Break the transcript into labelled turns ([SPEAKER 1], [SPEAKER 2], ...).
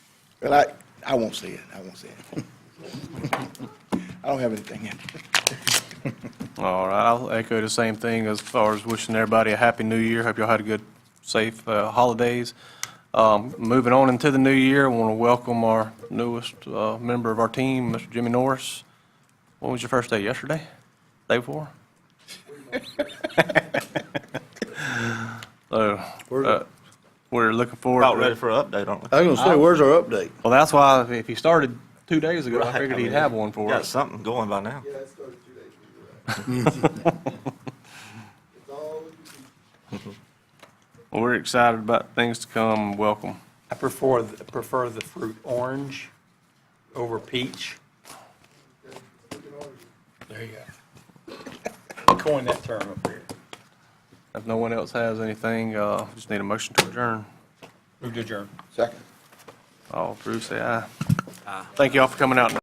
[SPEAKER 1] Well, I, I won't say it, I won't say it. I don't have anything in.
[SPEAKER 2] All right, I'll echo the same thing as far as wishing everybody a happy new year. Hope y'all had a good, safe uh, holidays. Um, Moving on into the new year, I want to welcome our newest uh, member of our team, Mr. Jimmy Norris. When was your first day? Yesterday? Day before? So, uh, we're looking forward.
[SPEAKER 3] About
[SPEAKER 2] to-
[SPEAKER 3] ready for an update, aren't we?
[SPEAKER 4] I was gonna say, where's our update?
[SPEAKER 2] Well, that's why if he started two days ago, I
[SPEAKER 3] Right,
[SPEAKER 2] figured
[SPEAKER 3] I
[SPEAKER 2] he'd
[SPEAKER 3] mean,
[SPEAKER 2] have one for
[SPEAKER 3] Got
[SPEAKER 2] us.
[SPEAKER 3] something going by now.
[SPEAKER 5] Yeah, it started two days ago. It's all in the-
[SPEAKER 2] Well, We're excited about things to come. Welcome.
[SPEAKER 6] I prefer, th- prefer the fruit orange over peach. There you go. Coin that term up here.
[SPEAKER 2] If no one else has anything, uh, just need a motion to adjourn.
[SPEAKER 6] Move to adjourn.
[SPEAKER 1] Second.
[SPEAKER 2] All approved, say aye. Thank you all for coming out.